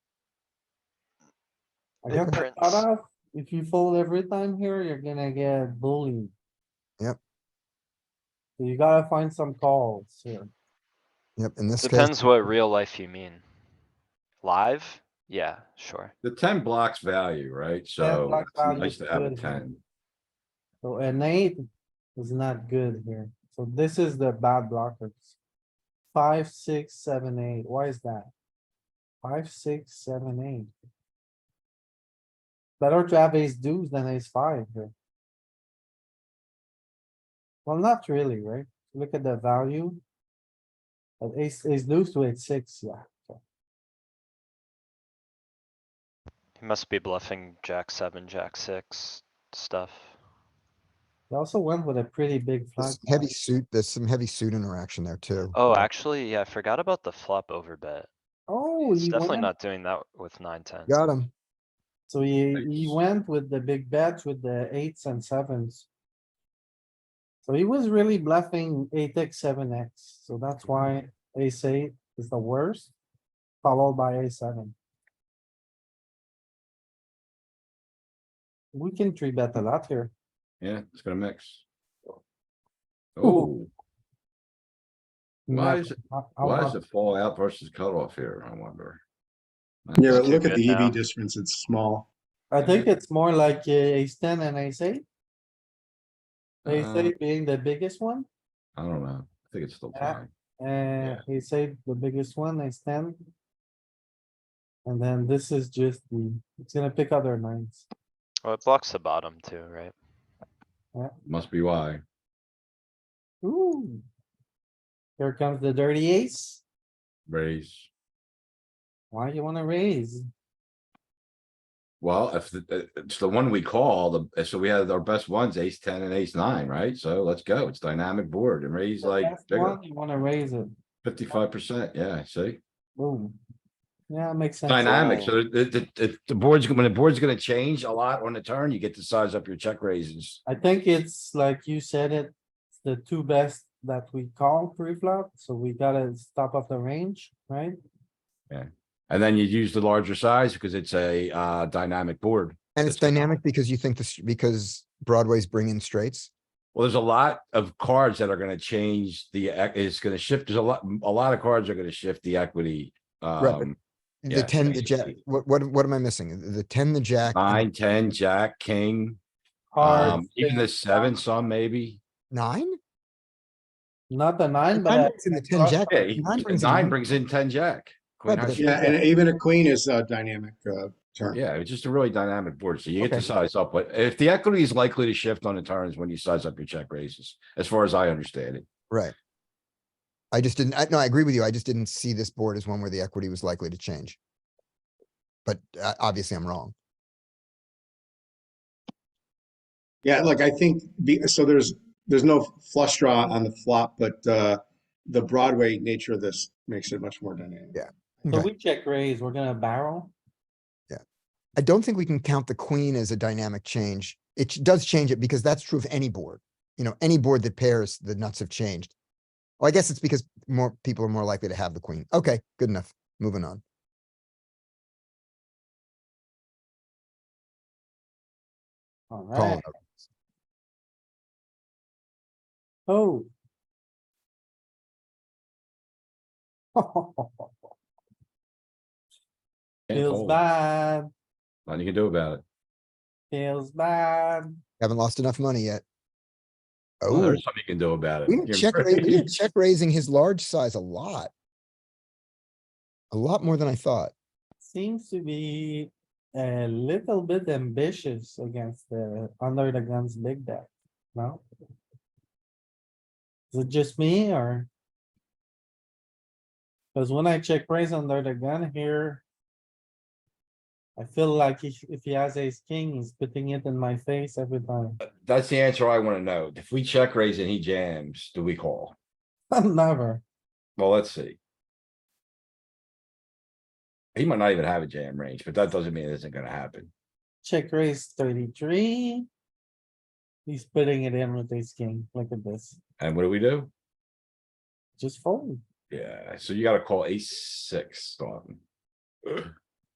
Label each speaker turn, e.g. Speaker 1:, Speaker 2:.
Speaker 1: I
Speaker 2: Big
Speaker 1: guess the
Speaker 2: prince.
Speaker 1: cutoff, if you fold every time here, you're gonna get bullied.
Speaker 3: Yep.
Speaker 1: So You gotta find some calls here.
Speaker 3: Yep, in this case,
Speaker 2: Depends what real life you mean. Live? Yeah, sure.
Speaker 4: The ten blocks value, right? So
Speaker 1: blocks
Speaker 4: it's
Speaker 1: value
Speaker 4: nice
Speaker 1: is
Speaker 4: to have a
Speaker 1: good.
Speaker 4: ten.
Speaker 1: So an eight is not good here. So this is the bad blockers. Five, six, seven, eight. Why is that? Five, six, seven, eight. Better to have ace deuce than ace five here. Well, not really, right? Look at the value. But ace, ace deuce to ace six, yeah.
Speaker 2: He must be bluffing jack seven, jack six stuff.
Speaker 1: They also went with a pretty big flag.
Speaker 3: there's heavy
Speaker 1: size.
Speaker 3: suit, there's some heavy suit interaction there too.
Speaker 2: Oh, actually, yeah, I forgot about the flop over bet.
Speaker 1: Oh,
Speaker 2: He's
Speaker 1: he
Speaker 2: definitely
Speaker 1: went,
Speaker 2: not doing that with nine, ten.
Speaker 3: Got him.
Speaker 1: so he, he
Speaker 4: Nice.
Speaker 1: went with the big bets with the eights and sevens. So he was really bluffing eight X, seven X, so that's
Speaker 4: Mm-hmm.
Speaker 1: why ace eight is the worst, followed by a seven. We can three bet a lot here.
Speaker 4: Yeah, it's gonna mix.
Speaker 1: Ooh.
Speaker 4: Oh, why
Speaker 1: Not-
Speaker 4: is, it?
Speaker 1: not- how
Speaker 4: why
Speaker 1: much-
Speaker 4: is it fall out versus cutoff here? I wonder.
Speaker 5: Yeah, but
Speaker 2: too
Speaker 5: look at
Speaker 2: good
Speaker 5: the
Speaker 2: now.
Speaker 5: EV difference, it's small.
Speaker 1: I think it's more like uh, ace ten and ace eight, ace
Speaker 4: Uh,
Speaker 1: eight being the biggest one.
Speaker 4: I don't know. I think it's still
Speaker 1: Yeah.
Speaker 4: fine.
Speaker 1: Uh, he said the biggest one, I stand. And then this is just the, it's gonna pick other nines.
Speaker 2: Well, it blocks the bottom too, right?
Speaker 4: Must be why.
Speaker 1: Ooh. Here comes the dirty ace.
Speaker 4: Raise.
Speaker 1: Why you wanna raise?
Speaker 4: Well, if the- uh, it's the one we call, the, uh, so we had our best ones, ace ten and ace nine, right? So let's go. It's dynamic board and raise
Speaker 1: The
Speaker 4: like
Speaker 1: best one, You wanna raise it.
Speaker 4: fifty-five percent. Yeah, see?
Speaker 1: Boom. Yeah, makes sense.
Speaker 4: Dynamic. So the, the, the, the board's, when the board's gonna change a lot on the turn, you get to size up your check raises.
Speaker 1: I think it's like you said it, it's the two best that we call pre-flop, so we gotta stop off the range, right?
Speaker 4: And then you use the larger size because it's a, uh, dynamic board.
Speaker 3: And it's
Speaker 4: That's-
Speaker 3: dynamic because you think this, because Broadway's bringing straights.
Speaker 4: Well, there's a lot of cards that are gonna change the, ec- it's gonna shift, there's a lot, a lot of cards are gonna shift the equity.
Speaker 3: Right, but
Speaker 4: Um,
Speaker 3: The
Speaker 4: Yeah,
Speaker 3: ten, the
Speaker 4: yeah.
Speaker 3: jack, what, what, what am I missing? The ten, the jack, and
Speaker 4: nine, ten, jack, king, um,
Speaker 1: Cards,
Speaker 4: even the
Speaker 1: six,
Speaker 4: seven, some maybe.
Speaker 3: nine?
Speaker 1: Not the nine, but.
Speaker 3: Nine
Speaker 1: I-
Speaker 3: brings in the
Speaker 1: I
Speaker 3: ten
Speaker 1: thought-
Speaker 3: jack.
Speaker 4: Yeah, he-
Speaker 3: Nine brings in
Speaker 4: nine
Speaker 3: nine.
Speaker 4: brings in ten, jack. Queen
Speaker 3: but
Speaker 4: high
Speaker 3: the-
Speaker 4: suit.
Speaker 5: Yeah, and even a queen is a dynamic, uh, turn.
Speaker 4: Yeah, it's just a really dynamic board, so you get to
Speaker 3: Okay.
Speaker 4: size up, but if the equity is likely to shift on the turns when you size up your check raises, as far as I understand it.
Speaker 3: Right. I just didn't, I, no, I agree with you. I just didn't see this board as one where the equity was likely to change. But uh, obviously I'm wrong.
Speaker 5: Yeah, look, I think the, so there's, there's no flush draw on the flop, but, uh, the Broadway nature of this makes it much more dynamic.
Speaker 3: Yeah.
Speaker 1: So
Speaker 3: Okay.
Speaker 1: we check raise, we're gonna barrel.
Speaker 3: I don't think we can count the queen as a dynamic change. It ch- does change it because that's true of any board. You know, any board that pairs, the nuts have changed. Well, I guess it's because more people are more likely to have the queen. Okay, good enough. Moving on. Calling
Speaker 1: Alright,
Speaker 3: it.
Speaker 1: oh.
Speaker 4: Can't
Speaker 1: Feels
Speaker 4: fold.
Speaker 1: bad,
Speaker 4: Nothing you can do about it.
Speaker 1: feels bad.
Speaker 3: Haven't lost enough money yet.
Speaker 4: Well,
Speaker 3: Oh,
Speaker 4: There's something you can do about it.
Speaker 3: we didn't
Speaker 4: You're
Speaker 3: check, ra- we didn't check raising his large size a lot. A lot more than I thought.
Speaker 1: Seems to be a little bit ambitious against the, under the guns big bet, no? Is it just me or? Cause when I check raise under the gun here. I feel like if, if he has ace king, he's putting it in my face every time.
Speaker 4: That's the answer I wanna know. If we check raise and he jams, do we call?
Speaker 1: Never.
Speaker 4: Well, let's see. He might not even have a jam range, but that doesn't mean it isn't gonna happen.
Speaker 1: Check raise thirty-three. He's putting it in with ace king. Look at this.
Speaker 4: And what do we do?
Speaker 1: Just fold.
Speaker 4: Yeah, so you gotta call ace six, Dalton.